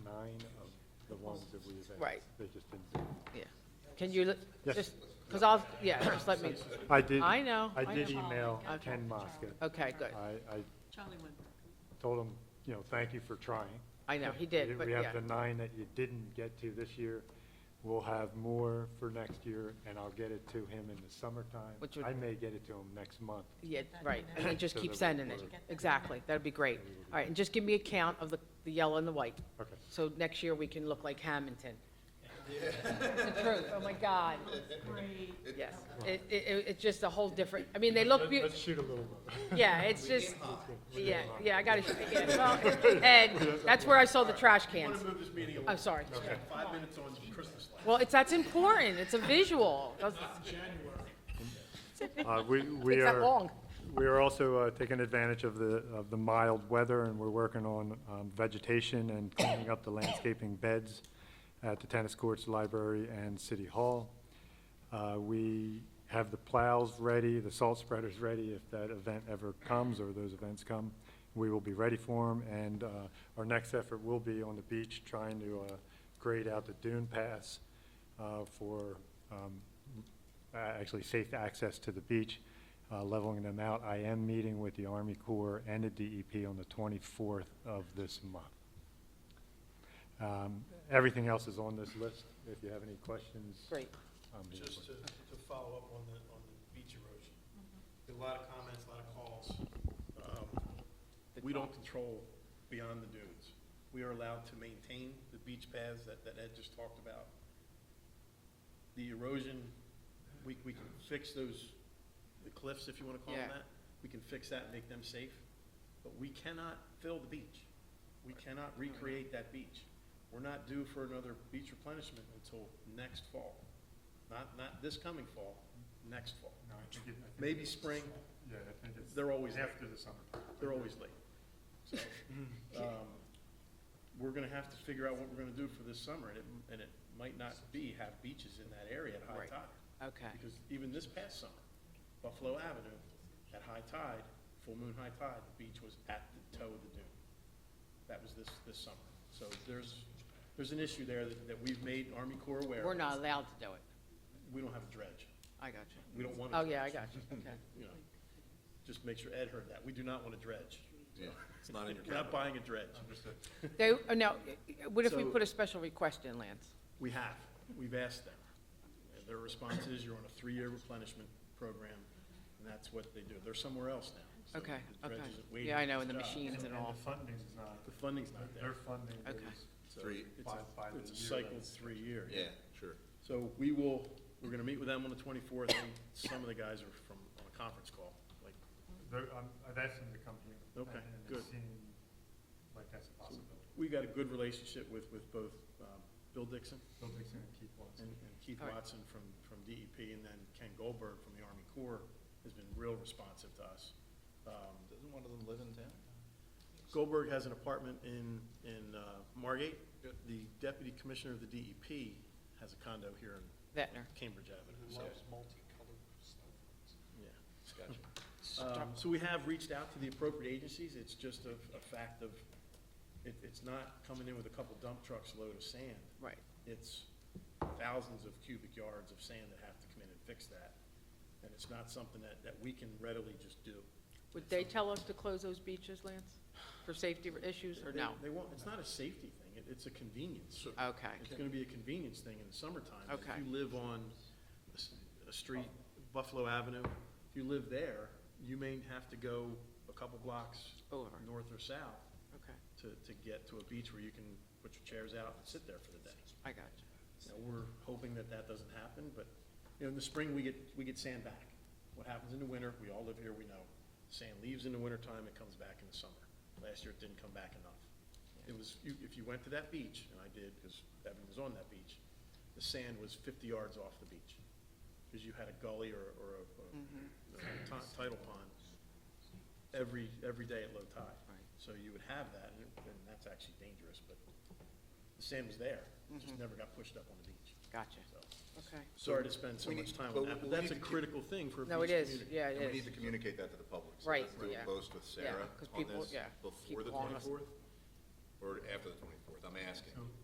nine of the ones that we have asked. Right. They just didn't. do it. Yeah. Can you, li- Yes. just, because I'll, yeah, just let me, I did. I know, I I did know. email Okay. Ken Mosca. okay, good. I, I Charlie went. told him, you know, thank you for trying. I know, he did, but We yeah. have the nine that you didn't get to this year. We'll have more for next year, and I'll get it to him in the summertime. Which would- I may get it to him next month. Yeah, right, and then just So keep that we sending it. order. Exactly, that'd be great. All right, and just give me a count of the, the yellow and the white, Okay. so next year we can look like Hamilton. The truth, oh my God. Yes, it, it, it- it's just a whole different, I mean, they look Let- beautiful. Let's shoot a little low. Yeah, it's just, yeah, yeah, I gotta, yeah, well, and that's where I saw the trash cans. I'm sorry. Five minutes on Christmas lights. Well, it's, that's important, it's a visual, That's- Uh, We, we Takes that are, long. we are also uh, taking advantage of the, of the mild weather, and we're working on um, vegetation and cleaning up the landscaping beds at the tennis courts, library, and city hall. Uh, We have the plows ready, the salt spreaders ready, if that event ever comes, or those events come. We will be ready for them, and uh, our next effort will be on the beach, trying to uh, grade out the dune pass uh, for um, uh, actually safe access to the beach, uh, leveling them out. I am meeting with the Army Corps and the DEP on the 24th of this month. Um, Everything else is on this list. If you have any questions. um, great. I'm here Just for to, it. to follow up on the, on the beach erosion, There are a lot of comments, a lot of calls. Um, We don't control beyond the dunes. We are allowed to maintain the beach paths that, that Ed just talked about. The erosion, we, we can fix those, the cliffs, if you wanna call them Yeah. that. We can fix that and make them safe, but we cannot fill the beach. We cannot recreate that beach. We're not due for another beach replenishment until next fall. Not, not this coming fall, next fall. Maybe spring, Yeah, I think it's they're always, after the summer. they're always late. So, um, we're gonna have to figure out what we're gonna do for this summer, and it, and it might not be have beaches in that area at high Right. tide. Okay, Because even this past summer, Buffalo Avenue, at high tide, full moon high tide, the beach was at the toe of the dune. That was this, this summer. So there's, there's an issue there that, that we've made Army Corps aware. of. we're not allowed to do it, We don't have a dredge. I got you. We don't want to. Oh, yeah, I got you, okay. You know, just make sure Ed heard that. We do not want a dredge. Yeah, it's not in your We're not buying a dredge. They, oh, now, what if we So- put a special request in, Lance? We have, we've asked them. And Their response is, you're on a three-year replenishment program, and that's what they do. They're somewhere else now. So Okay, the okay. dredge isn't waiting Yeah, I for know, its and the job. machines and all, the funding is not, The funding's not there. funding Okay. So Three. it's a- By- by the It's a year cycle that of it's- three years. Yeah, sure. So we will, we're gonna meet with them on the twenty-fourth, and some of the guys are from, on a conference call, like, um, I've asked them to come here. Okay, and it good. like that's a possibility. we got a good relationship with, with both, um, Bill Dixon and and Keith All right. Watson from, from DEP, and then Ken Goldberg from the Army Corps has been real responsive to us. Um, Doesn't one of them live in town? Goldberg has an apartment in, in uh, Margate. The deputy commissioner of the DEP has a condo here in Vetner. Cambridge Avenue, so, multicolored stuff. yeah. Gotcha. Um, So we have reached out to the appropriate agencies, it's just a, a fact of, it, it's not coming in with a couple dump trucks load of sand. Right, It's thousands of cubic yards of sand that have to come in and fix that. And it's not something that, that we can readily just do. would they tell us to close those beaches, Lance, for safety issues, or They- no? They won't, it's not a safety thing, it, it's a convenience. Okay, It's gonna be a convenience thing in the summertime. Okay. If you live on a s- a street, Buffalo Avenue, if you live there, you may have to go a couple blocks over, north or south okay, to, to get to a beach where you can put your chairs out and sit there for the day. I got you, Now, we're hoping that that doesn't happen, but, you know, in the spring, we get, we get sand back. What happens in the winter, we all live here, we know. Sand leaves in the wintertime, it comes back in the summer. Last year, it didn't come back enough. It was, you- if you went to that beach, and I did, because Evan was on that beach, the sand was fifty yards off the beach. Because you had a gully or, or a- a ti- tidal pond every, every day at low tide. Right. So you would have that, and it- and that's actually dangerous, but the sand was there, it just Mm-hmm. never got pushed up on the beach. gotcha, So, okay. Sorry to spend so we much need- time but on that, we but that's a need to keep- critical thing for a beach No, it community. is, yeah, And we it need is, to communicate that to the public. So Right, let's do a yeah. post with Yeah, Sarah 'cause on people- this yeah, before keep the calling us. twenty-fourth? Or after the twenty-fourth, I'm asking.